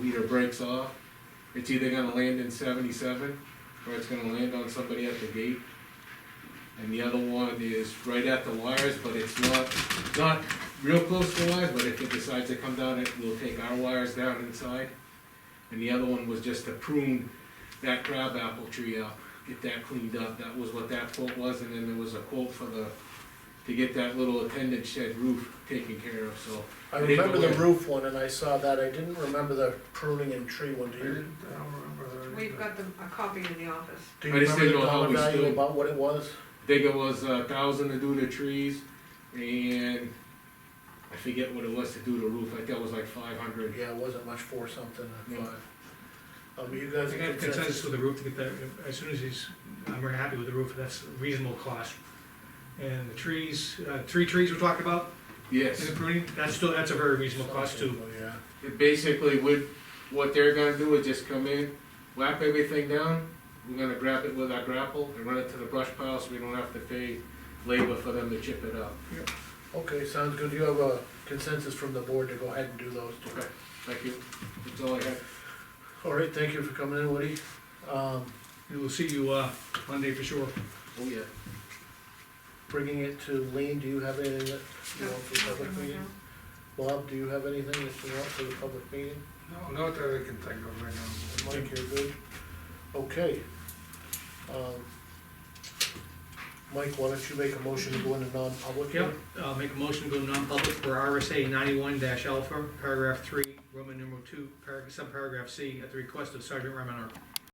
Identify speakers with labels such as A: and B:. A: either breaks off, it's either gonna land in seventy-seven, or it's gonna land on somebody at the gate. And the other one is right at the wires, but it's not, not real close to the wires, but if it decides to come down, it will take our wires down inside. And the other one was just to prune that crab apple tree out, get that cleaned up, that was what that quote was, and then there was a quote for the, to get that little attendant shed roof taken care of, so.
B: I
A: I didn't
B: remember
A: know
B: the
A: where-
B: roof one and I saw that, I didn't remember the pruning and tree one, do
C: I
B: you?
C: didn't, I don't remember that.
D: We've
C: either.
D: got them, a copy in the office.
B: Do you
A: I just
B: remember the
A: didn't know how
B: dollar
A: we
B: value
A: stood.
B: about what it was?
A: Digger was a thousand to do the trees, and I forget what it was to do the roof, I think it was like five hundred.
B: Yeah, it wasn't much for something, I
A: No.
B: thought. Um, you guys
C: I
B: in
C: got
B: consensus?
C: consensus with the roof to get that, as soon as he's, I'm very happy with the roof, that's a reasonable cost. And the trees, uh, three trees we're talking about, in
A: Yes,
C: the pruning, that's still, that's a very reasonable cost too.
B: Yeah,
A: it basically, would what they're gonna do is just come in, whap everything down, we're gonna grab it with our grapple and run it to the brush pile, so we don't have to pay labor for them to chip it up.
B: okay, sounds good, you have a consensus from the board to go ahead and do those two.
A: Okay, thank you, that's all I have.
B: All right, thank you for coming in, Woody. Um,
C: We will see you, uh, Monday for sure.
A: Oh, yeah.
B: bringing it to Lean, do you have anything that you want for the public meeting? Bob, do you have anything that you want for the public meeting?
C: No, not that I can think of right
B: And Mike, you're good? Okay. Um, Mike, why don't you make a motion to go into non-public? here?
C: Yep, uh, make a motion to go non-public for RSA ninety-one dash alpha, paragraph three, Roman numeral two, paragraph, subparagraph C, at the request of Sergeant Remenor.